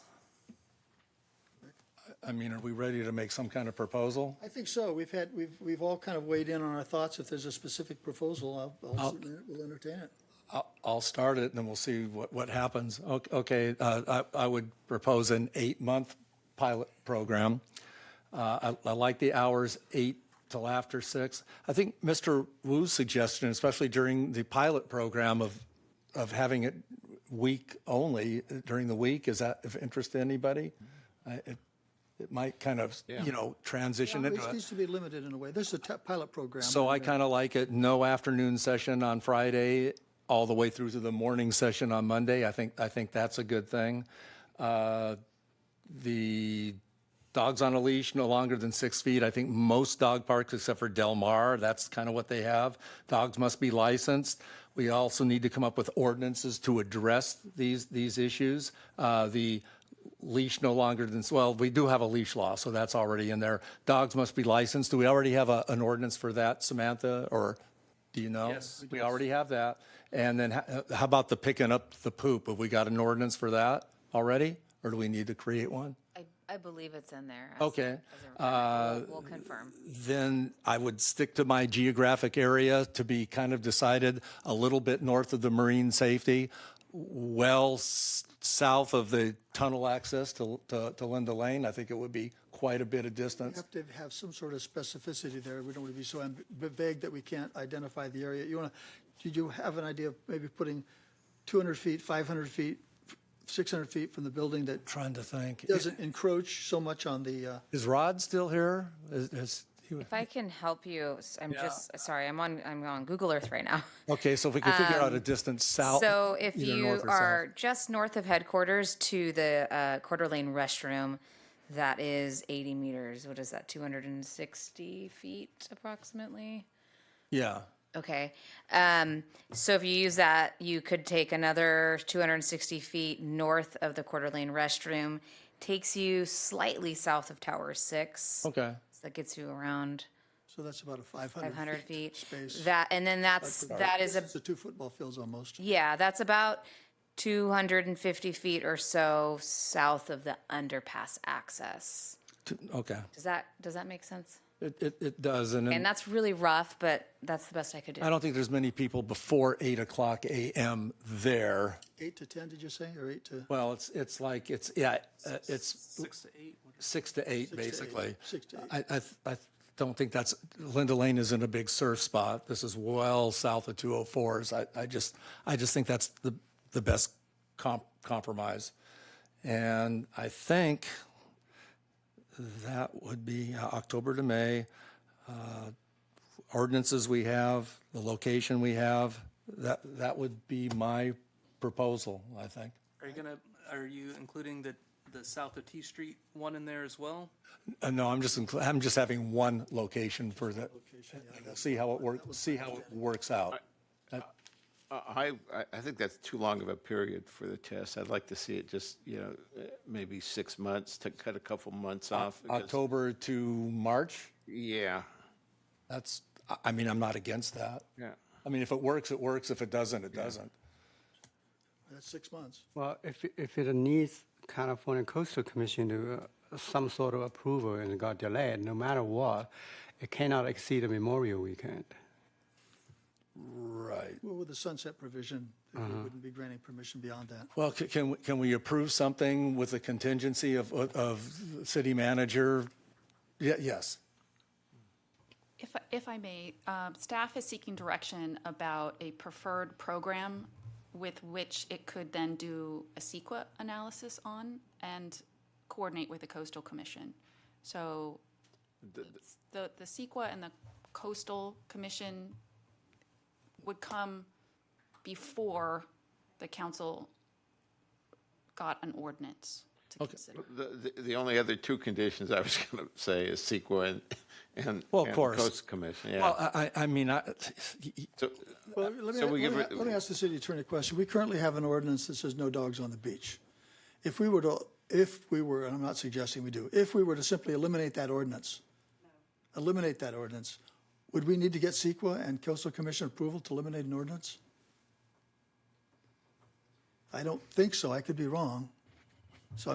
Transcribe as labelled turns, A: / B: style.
A: I mean, are we ready to make some kind of proposal?
B: I think so. We've had, we've, we've all kind of weighed in on our thoughts. If there's a specific proposal, I'll, I'll, we'll entertain it.
A: I'll- I'll start it, and then we'll see what, what happens. O- Okay, uh, I I would propose an eight-month pilot program. Uh, I I like the hours, eight till after six. I think Mr. Wu's suggestion, especially during the pilot program of, of having it week only, uh, during the week, is that of interest to anybody? I- It it might kind of, you know, transition into
B: It
A: a
B: needs to be limited in a way. This is a te- pilot program.
A: so I kind of like it, no afternoon session on Friday, all the way through to the morning session on Monday. I think, I think that's a good thing. Uh, The dogs on a leash, no longer than six feet. I think most dog parks, except for Del Mar, that's kind of what they have. Dogs must be licensed. We also need to come up with ordinances to address these, these issues. Uh, The leash no longer than, well, we do have a leash law, so that's already in there. Dogs must be licensed. Do we already have a, an ordinance for that, Samantha, or do you know? Yes. We already have that. And then ho- how about the picking up the poop? Have we got an ordinance for that already? Or do we need to create one?
C: I, I believe it's in there. as-
A: Okay. Uh,
C: as a- We'll we'll confirm.
A: then I would stick to my geographic area to be kind of decided a little bit north of the marine safety, well s- south of the tunnel access to, to, to Linda Lane. I think it would be quite a bit of
B: We
A: distance.
B: have to have some sort of specificity there. We don't want to be so amb- vague that we can't identify the area. You want to, did you have an idea of maybe putting 200 feet, 500 feet, 600 feet from the building that
A: Trying to think.
B: doesn't encroach so much on the, uh,
A: Is Rod still here? Is, is he?
C: If I can help you, s- I'm just, sorry, I'm on, I'm on Google Earth right now.
A: Okay, so if we could figure out a distance south.
C: Um, So if
A: Oh, either
C: you
A: north or south.
C: are just north of headquarters to the uh, Quarter Lane restroom, that is 80 meters. What is that, 260 feet approximately?
A: Yeah,
C: Okay. Um, so if you use that, you could take another 260 feet north of the Quarter Lane restroom. Takes you slightly south of Tower 6.
A: okay.
C: So that gets you around
B: so that's about a 500
C: 500
B: feet
C: feet.
B: space.
C: That, and then that's, that is a,
B: It's the two football fields almost.
C: yeah, that's about 250 feet or so south of the underpass access.
A: T- Okay,
C: Does that, does that make sense?
A: it, it, it does. And
C: And
A: then
C: that's really rough, but that's the best I could do.
A: I don't think there's many people before eight o'clock AM there.
B: Eight to 10, did you say, or eight to?
A: Well, it's, it's like, it's, yeah, uh, it's. Six to eight. Six to eight, basically.
B: Six to eight.
A: I, I, th- I don't think that's, Linda Lane isn't a big surf spot. This is well south of 204s. I, I just, I just think that's the, the best comp, compromise. And I think that would be uh, October to May. Uh, Ordinances we have, the location we have, that, that would be my proposal, I think.
D: Are you gonna, are you including the, the south of T Street one in there as well?
A: Uh, No, I'm just, inclu- I'm just having one location for the, and we'll see how it works, see how it works out.
E: Uh, I, I- I think that's too long of a period for the test. I'd like to see it just, you know, uh, maybe six months to cut a couple months off. because-
A: October to March,
E: Yeah,
A: that's, I- I mean, I'm not against that.
E: yeah.
A: I mean, if it works, it works. If it doesn't, it doesn't.
B: That's six months.
F: Well, if, it- if it needs California Coastal Commission to, uh, some sort of approval and it got delayed, no matter what, it cannot exceed a Memorial Weekend.
A: Right.
B: Well, with the sunset provision, we
E: Uh-huh.
B: wouldn't be granting permission beyond that.
A: Well, c- can, we- can we approve something with a contingency of, of city manager? Ye- Yes.
G: If, if I may, um, staff is seeking direction about a preferred program with which it could then do a CEQA analysis on and coordinate with the coastal commission. So it's the, the CEQA and the coastal commission would come before the council got an ordinance to consider.
E: The, the- the only other two conditions I was going to say is CEQA and, and.
A: Well, of
E: and
A: course.
E: Coast Commission,
A: Well,
E: yeah.
A: I, I I mean, I,
E: So,
B: Well, let me,
E: So we
B: let
E: give
B: me-
E: it-
B: let me ask the city attorney a question. We currently have an ordinance that says no dogs on the beach. If we were to, if we were, and I'm not suggesting we do, if we were to simply eliminate that ordinance, eliminate that ordinance, would we need to get CEQA and coastal commission approval to eliminate an ordinance? I don't think so. I could be wrong.